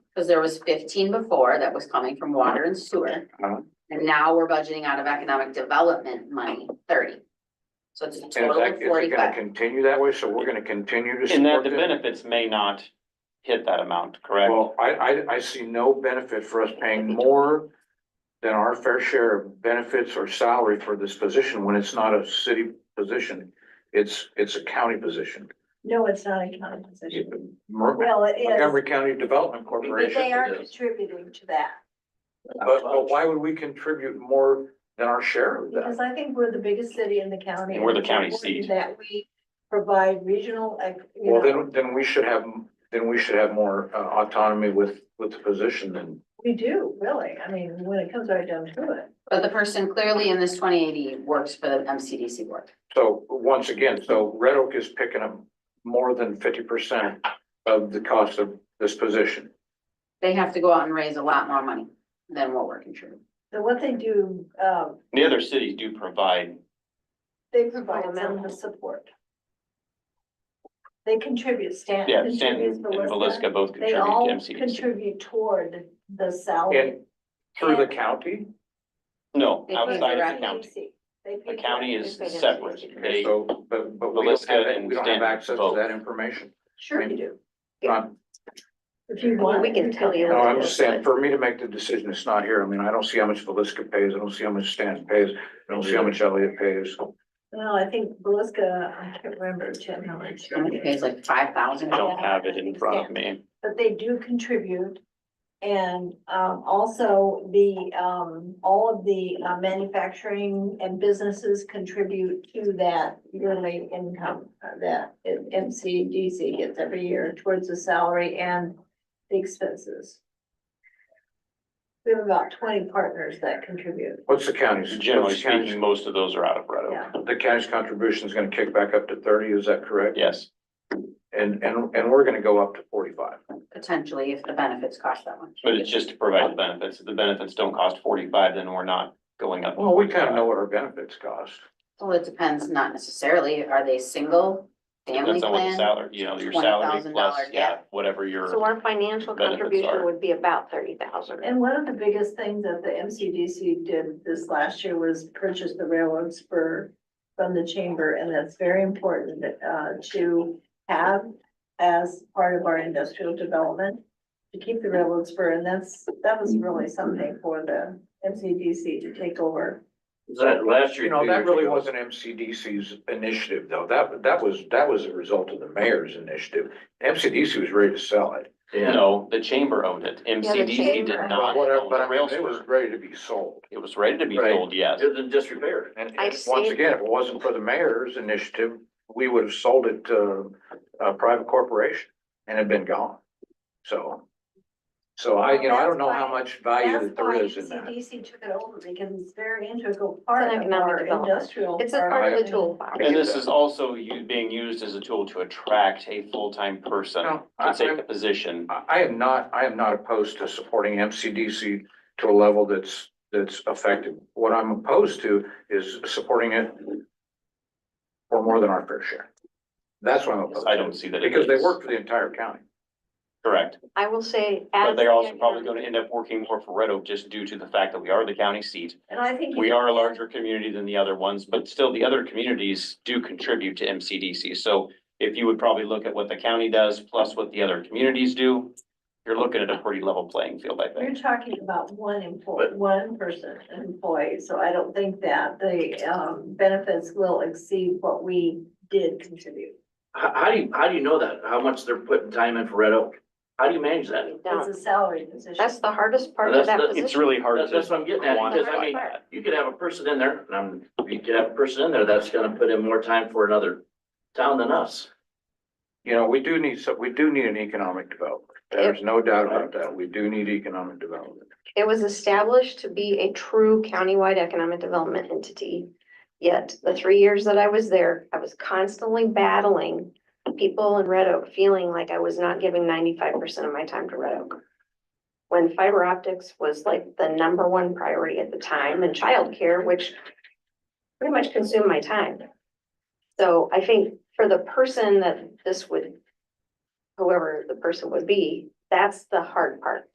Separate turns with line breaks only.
Cause there was fifteen before that was coming from water and sewer.
Uh-huh.
And now we're budgeting out of economic development money thirty. So it's a
And is
total
that,
of
is it gonna
forty-five.
continue that way? So we're gonna continue to
And that
support
the
them?
benefits may not hit that amount, correct?
Well, I, I, I see no benefit for us paying more than our fair share of benefits or salary for this position when it's not a city position. It's, it's a county position.
No, it's not a county position.
Mer-
Well, it is,
Montgomery County Development
but
Corporation.
they are
it is.
contributing to that,
But, but why would we contribute more than our share of that?
because I think we're the biggest city in the county.
And we're the
and it's
county
important
seat.
That we provide regional, like, you
Well,
know,
then, then we should have, then we should have more uh, autonomy with, with the position than.
we do, really, I mean, when it comes right down to it.
But the person clearly in this twenty eighty works for the MCDC board.
So once again, so Red Oak is picking up more than fifty percent of the cost of this position.
They have to go out and raise a lot more money than what we're contributing.
So what they do, um,
The other cities do provide,
they provide some support. They contribute, Stan.
yeah,
contributes
Stanton and
Valiska.
Valiska both
They
contribute
all
to MCDC.
contribute toward the salary.
And through the county,
No,
They pay
outside of the
direct.
county.
They pay
The county
direct.
is
They pay
separate.
direct.
They-
so, but, but we don't
Valiska
have, it-
and
we don't have
Stanton
access to
both.
that information.
Sure you do.
Um,
If you want.
We can
you
tell you
No,
can.
I'm just saying, for me to make the decision, it's not here. I mean, I don't see how much Velisca pays, I don't see how much Stanton pays, I don't see how much Elliott pays.
Well, I think Beluska, I can't remember, Jim, how much,
I think it pays like five thousand.
I don't have it in front of me.
but they do contribute. And um also the um, all of the uh, manufacturing and businesses contribute to that yearly income. uh, That MCDC gets every year towards the salary and the expenses. We have about twenty partners that contribute.
What's the county's?
Generally
what's the county's-
speaking, most of those are out of Red
Yeah.
Oak.
The county's contribution is gonna kick back up to thirty, is that correct?
Yes,
And, and, and we're gonna go up to forty-five.
Potentially, if the benefits cost that much.
but it's just to provide the benefits. If the benefits don't cost forty-five, then we're not going up.
Well, we kind of know what our benefits cost.
Well, it depends, not necessarily. Are they single, family
Depends on what the
plan?
salary, you know, your salary
$20,000
plus, yeah,
gap.
whatever
So
your,
our financial
Benefits are-
contribution would be about thirty thousand.
And one of the biggest things that the MCDC did this last year was purchase the railroad spur from the chamber, and that's very important uh, to have as part of our industrial development, to keep the railroad spur, and that's, that was really something for the MCDC to take over.
That last year.
You know,
two
that
years
really
ago,
wasn't MCDC's initiative though. That, that was, that was a result of the mayor's initiative. MCDC was ready to sell it.
Yeah.
no, the chamber owned it. MCDC
chamber.
did
But
not.
whatever,
own
but I
the rail
mean, it was
spur.
ready to be sold.
It was ready to be
Right.
sold, yes.
It was in disrepair.
And
I
and once
see.
again, if it wasn't for the mayor's initiative, we would have sold it to a private corporation and had been gone. So, so I, you know, I don't know how much value
That's
that
why
there is in that.
MCDC took it over, because it's very integral part
It's an
of
economic
our
development.
industrial.
It's a part of the
and-
toolbox.
And this is also you being used as a tool to attract a full-time person
Oh,
No, I-
to
I-
take the position.
I, I am not, I am not opposed to supporting MCDC to a level that's, that's effective. What I'm opposed to is supporting it for more than our fair share. That's what I'm opposed
I don't
to,
see that. it
because they
is.
work for the entire county.
Correct,
I will say.
but
as
they're
the
also probably
economic-
gonna end up working more for Red Oak just due to the fact that we are the county seat.
And I think.
We are a larger community than the other ones, but still the other communities do contribute to MCDC. So if you would probably look at what the county does plus what the other communities do, you're looking at a pretty level playing field, I
You're
think.
talking about one employee,
But-
one person, an employee, so I don't think that the um benefits will exceed what we did contribute.
How, how do you, how do you know that? How much they're putting time in for Red Oak? How do you manage that?
It's a salary position.
That's the hardest part of
That's
that
the-
It's
position.
really hard
That's, that's
to
what I'm getting at, because I mean,
quantify.
you could have a person in there, and I'm, you could have a person in there that's gonna put in more time for another town than us.
You know, we do need, so we do need an economic development. There's no doubt about that. We do need economic development.
It was established to be a true countywide economic development entity. Yet the three years that I was there, I was constantly battling people in Red Oak, feeling like I was not giving ninety-five percent of my time to Red Oak. When fiber optics was like the number one priority at the time and childcare, which pretty much consumed my time. So I think for the person that this would, whoever the person would be, That's the hard part.